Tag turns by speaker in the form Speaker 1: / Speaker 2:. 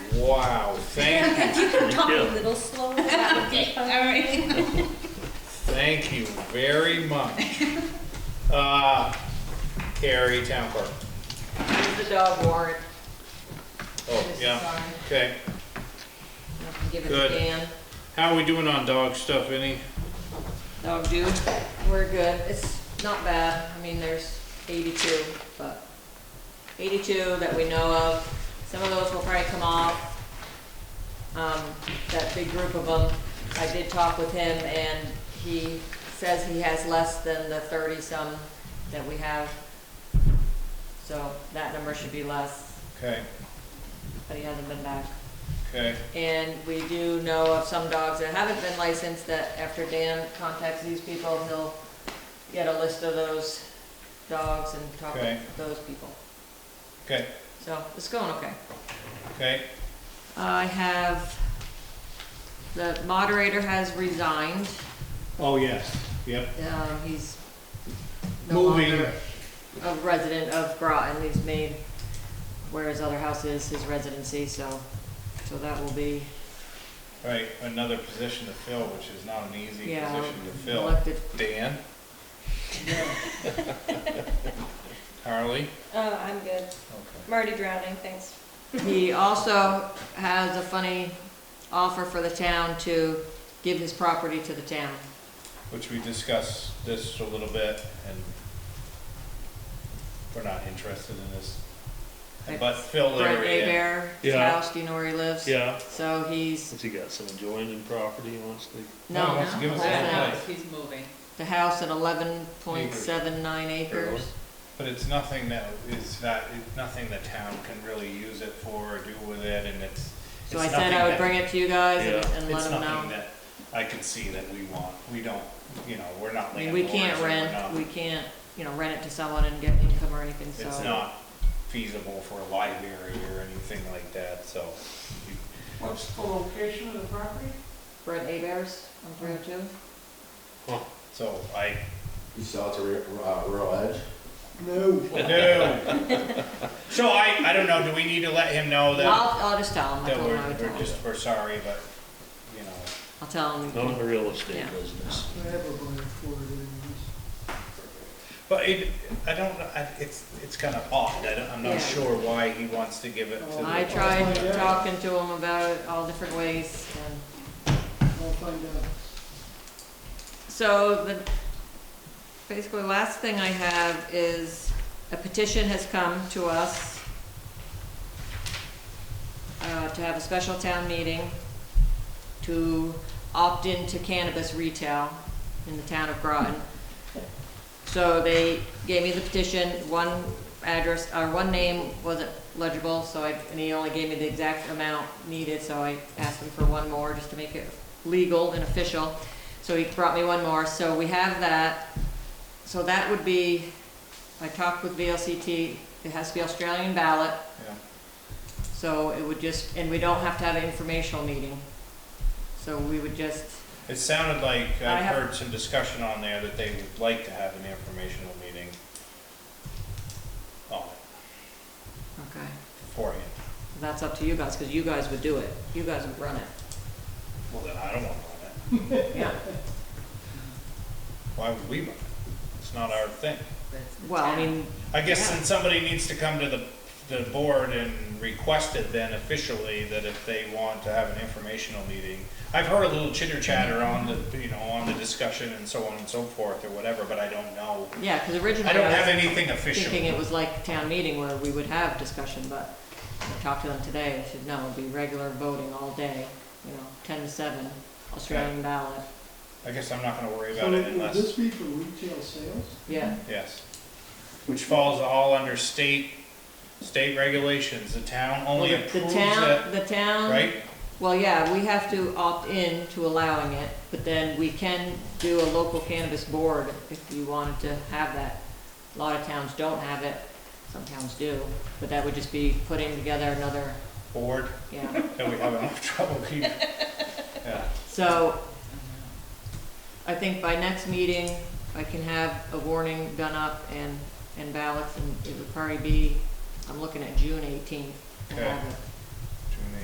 Speaker 1: Wow, thank you,
Speaker 2: Talk a little slower.
Speaker 3: Okay, all right.
Speaker 1: thank you very much. Uh, Carrie, town clerk.
Speaker 4: Here's the dog warrant.
Speaker 1: Oh, yeah,
Speaker 4: Sorry.
Speaker 1: okay.
Speaker 4: I can Give it
Speaker 1: Good.
Speaker 4: to Dan.
Speaker 1: How are we doing on dog stuff, any?
Speaker 4: Dog do. We're good. It's not bad. I mean, there's eighty-two, but eighty-two that we know of. Some of those will probably come off. Um, that big group of them, I did talk with him and he says he has less than the thirty-some that we have. So that number should be less,
Speaker 1: Okay,
Speaker 4: but he hasn't been back.
Speaker 1: okay,
Speaker 4: And we do know of some dogs that haven't been licensed that after Dan contacts these people, he'll get a list of those dogs and talk
Speaker 1: Okay.
Speaker 4: with those people.
Speaker 1: okay,
Speaker 4: So it's going okay.
Speaker 1: okay,
Speaker 4: I have, the moderator has resigned.
Speaker 5: Oh, yes, yep.
Speaker 4: Um, he's no
Speaker 5: Moving,
Speaker 4: longer a resident of Groton. He's made where his other house is his residency, so, so that will be
Speaker 1: right, another position to fill, which is not an easy
Speaker 4: Yeah,
Speaker 1: position to fill.
Speaker 4: elected.
Speaker 1: Dan? Harley?
Speaker 2: Oh, I'm good.
Speaker 1: Okay.
Speaker 2: I'm already drowning, thanks.
Speaker 4: He also has a funny offer for the town to give his property to the town.
Speaker 1: which we discussed this a little bit, and we're not interested in this. But Phil
Speaker 4: Brent
Speaker 1: Leary,
Speaker 4: Abear's
Speaker 5: Yeah.
Speaker 4: house, do you know where he lives?
Speaker 5: yeah.
Speaker 4: So he's,
Speaker 5: Has he got some adjoining property he wants to?
Speaker 1: No, he
Speaker 4: no,
Speaker 1: wants to give us
Speaker 4: the
Speaker 1: all the
Speaker 4: house-
Speaker 1: place.
Speaker 3: He's moving.
Speaker 4: the house at eleven point seven nine acres.
Speaker 1: but it's nothing that is not, it's nothing the town can really use it for or do with it, and it's.
Speaker 4: So
Speaker 1: it's
Speaker 4: I said I
Speaker 1: nothing
Speaker 4: would bring it to you guys and
Speaker 5: Yeah.
Speaker 1: that-
Speaker 4: and let them
Speaker 1: It's nothing
Speaker 4: know.
Speaker 1: that I can see that we want, we don't, you know, we're not
Speaker 4: I mean,
Speaker 1: landlords.
Speaker 4: we can't
Speaker 1: and we're
Speaker 4: rent,
Speaker 1: not-
Speaker 4: we can't, you know, rent it to someone and get income or anything, so.
Speaker 1: It's not feasible for a library or anything like that, so. you-
Speaker 6: What's the location of the property?
Speaker 4: Brent Abear's on three oh two?
Speaker 1: So I,
Speaker 7: You sell it to Ru- uh, Rural Edge?
Speaker 6: No.
Speaker 1: No. So I, I don't know, do we need to let him know that,
Speaker 4: I'll, I'll just tell him, I
Speaker 1: that
Speaker 4: told
Speaker 1: we're,
Speaker 4: him I would tell
Speaker 1: we're
Speaker 4: him.
Speaker 1: just, we're sorry, but, you know,
Speaker 4: I'll tell him.
Speaker 5: Not a real estate
Speaker 4: Yeah.
Speaker 5: business.
Speaker 6: Whatever, going forward anyways.
Speaker 1: but it, I don't, I, it's, it's kind of odd, I don't, I'm
Speaker 4: Yeah.
Speaker 1: not sure why he wants to give it to the.
Speaker 4: I tried
Speaker 6: Yeah.
Speaker 4: talking to him about it all different ways, and
Speaker 6: I'll find out.
Speaker 4: so the, basically, last thing I have is a petition has come to us uh, to have a special town meeting to opt into cannabis retail in the town of Groton. So they gave me the petition, one address, or one name wasn't legible, so I, and he only gave me the exact amount needed, so I asked him for one more, just to make it legal and official. So he brought me one more, so we have that. So that would be, I talked with VLCT, it has to be Australian ballot,
Speaker 1: Yeah.
Speaker 4: so it would just, and we don't have to have an informational meeting. So we would just,
Speaker 1: It sounded like,
Speaker 4: I
Speaker 1: I've
Speaker 4: have-
Speaker 1: heard some discussion on there that they would like to have an informational meeting on it
Speaker 4: okay,
Speaker 1: beforehand.
Speaker 4: that's up to you guys, because you guys would do it, you guys would run it.
Speaker 1: Well, then I don't want to run it.
Speaker 4: Yeah.
Speaker 1: Why would we run it? It's not our thing.
Speaker 4: Well, I mean,
Speaker 1: I guess
Speaker 4: Yeah.
Speaker 1: then somebody needs to come to the, the board and request it then officially that if they want to have an informational meeting. I've heard a little chitter chatter on the, you know, on the discussion and so on and so forth or whatever, but I don't know.
Speaker 4: yeah, because
Speaker 1: I
Speaker 4: originally
Speaker 1: don't have
Speaker 4: I
Speaker 1: anything
Speaker 4: was thinking
Speaker 1: official.
Speaker 4: it was like town meeting where we would have discussion, but I talked to them today, I said, no, it'd be regular voting all day, you know, ten to seven, Australian ballot,
Speaker 1: I guess I'm not gonna worry
Speaker 6: So
Speaker 1: about it
Speaker 6: would
Speaker 1: unless,
Speaker 6: this be for retail sales?
Speaker 4: yeah.
Speaker 1: yes. Which falls all under state, state regulations. The town only
Speaker 4: The
Speaker 1: approves it,
Speaker 4: town, um, the town.
Speaker 1: right?
Speaker 4: Well, yeah, we have to opt in to allowing it, but then we can do a local cannabis board if you wanted to have that. A lot of towns don't have it, some towns do, but that would just be putting together another,
Speaker 1: Board,
Speaker 4: yeah.
Speaker 1: that we have enough trouble keeping. Yeah,
Speaker 4: So I think by next meeting, I can have a warning done up and, and ballots, and it would probably be, I'm looking at June eighteenth to have it.